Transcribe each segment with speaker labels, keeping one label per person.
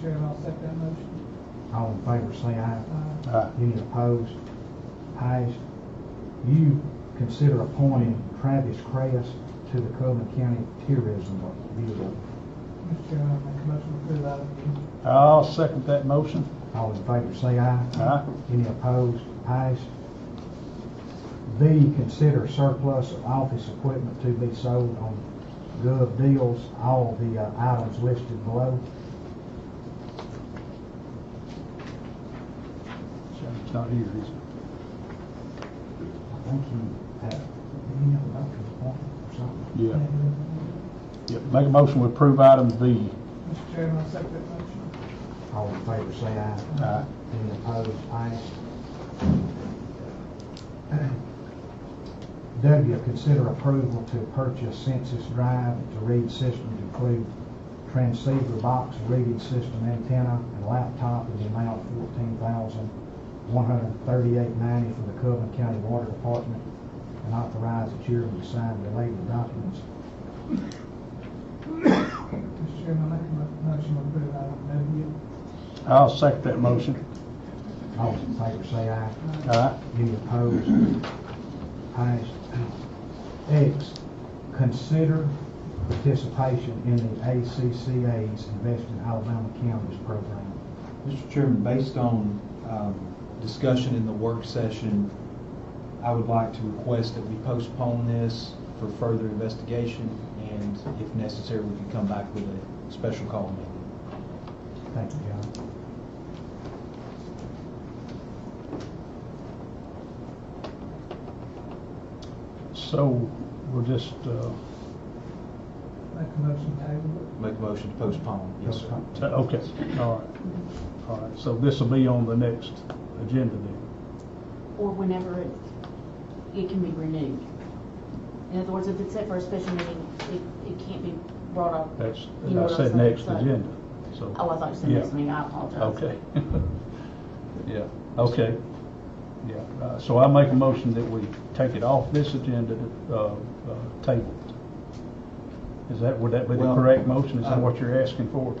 Speaker 1: Chairman, I'll second that motion.
Speaker 2: All in favor, say aye.
Speaker 1: Uh,
Speaker 3: Aye.
Speaker 2: Any opposed? Ayes. You consider appointing Travis Crest to the Coleman County Tourism Bureau.
Speaker 1: Mr. Chairman, I make a motion to approve item B.
Speaker 3: I'll second that motion.
Speaker 2: All in favor, say aye.
Speaker 3: Aye.
Speaker 2: Any opposed? Ayes. B, consider surplus of office equipment to be sold on gov deals, all the uh, items listed below.
Speaker 3: It's not here, is it?
Speaker 2: I think you have, do you have a doctor's appointment or something?
Speaker 3: Yeah. Yep. Make a motion to approve item B.
Speaker 1: Mr. Chairman, I'll second that motion.
Speaker 2: All in favor, say aye.
Speaker 3: Aye.
Speaker 2: Any opposed? Ayes. W, consider approval to purchase Census Drive to read system to include transceiver box, reading system antenna, and laptop in the amount of fourteen thousand, one hundred thirty-eight ninety from the Coven County Water Department, and authorize the chairman to sign related documents.
Speaker 1: Mr. Chairman, I make a mo- motion to approve item
Speaker 3: I'll second that motion.
Speaker 2: All in favor, say aye.
Speaker 1: W.
Speaker 3: Aye.
Speaker 2: Any opposed? Ayes. X, consider participation in the ACCA's Invest in Alabama Counties program.
Speaker 4: Mr. Chairman, based on um, discussion in the work session, I would like to request that we postpone this for further investigation, and if necessary, we can come back with a special call meeting.
Speaker 2: Thank you, John.
Speaker 3: So we're just, uh,
Speaker 1: Make a motion to table
Speaker 4: Make a motion to postpone. Yes, sir.
Speaker 3: ta- okay, all right. All right, so this will be on the next agenda then.
Speaker 5: or whenever it, it can be renewed. In other words, if it's set for a special meeting, it, it can't be brought up.
Speaker 3: That's,
Speaker 5: You know
Speaker 3: I
Speaker 5: what I'm
Speaker 3: said
Speaker 5: saying,
Speaker 3: next
Speaker 5: so-
Speaker 3: agenda, so.
Speaker 5: Oh, I thought you said
Speaker 3: Yeah.
Speaker 5: next meeting, I apologize.
Speaker 3: Okay. Yeah, okay. Yeah, uh, so I make a motion that we take it off this agenda, uh, uh, table. it. Is that, would that be the
Speaker 4: Well,
Speaker 3: correct motion? Is that
Speaker 4: uh,
Speaker 3: what you're asking for?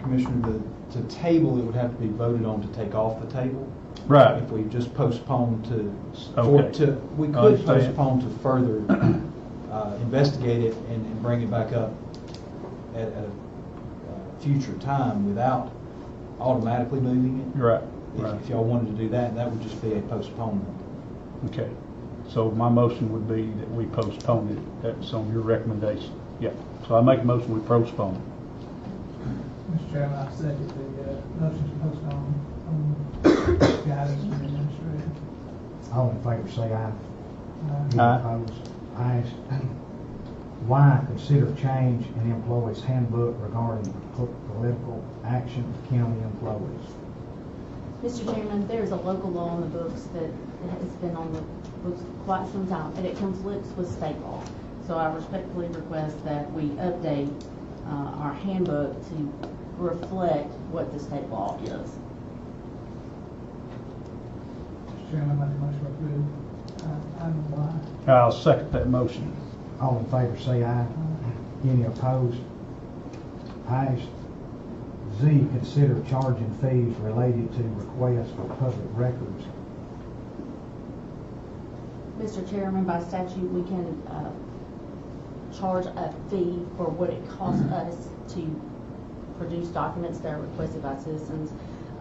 Speaker 4: Commissioner, the, to table, it would have to be voted on to take off the table.
Speaker 3: Right,
Speaker 4: If we just postpone to, or
Speaker 3: Okay.
Speaker 4: to, we
Speaker 3: I
Speaker 4: could
Speaker 3: understand.
Speaker 4: postpone to further uh, investigate it and and bring it back up at a uh, future time without automatically moving it.
Speaker 3: right,
Speaker 4: If-
Speaker 3: right,
Speaker 4: If y'all wanted to do that, that would just be a postponement.
Speaker 3: okay. So my motion would be that we postpone it, that's on your recommendation. Yeah, so I make a motion, we postpone. it.
Speaker 1: it. Mr. Chairman, I second the, uh, motion to postpone, um, guidance from the administrator.
Speaker 2: All in favor, say aye.
Speaker 1: Uh,
Speaker 2: Any
Speaker 3: Aye.
Speaker 2: opposed? Ayes. Y, consider change in employees handbook regarding po- political action of county employees.
Speaker 5: Mr. Chairman, there's a local law on the books that has been on the books quite some time, and it conflicts with state law. So I respectfully request that we update, uh, our handbook to reflect what the state law is.
Speaker 1: Mr. Chairman, I make a motion to approve uh, item Y.
Speaker 3: I'll second that motion.
Speaker 2: All in favor, say aye. Any opposed? Ayes. Z, consider charging fees related to requests for public records.
Speaker 5: Mr. Chairman, by statute, we can uh, charge a fee for what it costs us to produce documents that are requested by citizens.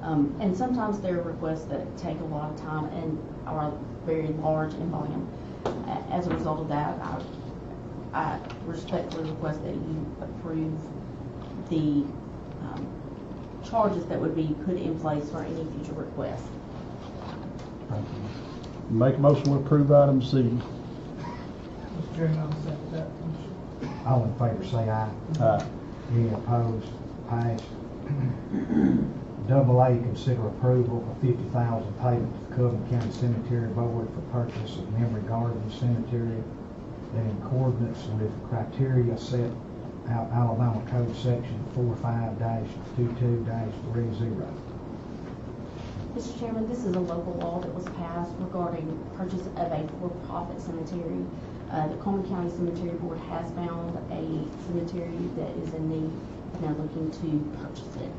Speaker 5: Um, And sometimes there are requests that take a lot of time and are very large in volume. A- As a result of that, I I respectfully request that you approve the um, charges that would be put in place for any future requests.
Speaker 2: Thank you.
Speaker 3: Make a motion, we approve item Z.
Speaker 1: Mr. Chairman, I'll second that motion.
Speaker 2: All in favor, say aye.
Speaker 3: Aye.
Speaker 2: Any opposed? Ayes. Double A, consider approval of fifty thousand payment to Coven County Cemetery Board for purchase of memory garden cemetery that in accordance with criteria set out Alabama Code Section four five dash two-two dash three zero.
Speaker 5: Mr. Chairman, this is a local law that was passed regarding purchase of a for-profit cemetery. Uh, the Coleman County Cemetery Board has found a cemetery that is in need, and they're looking to purchase it.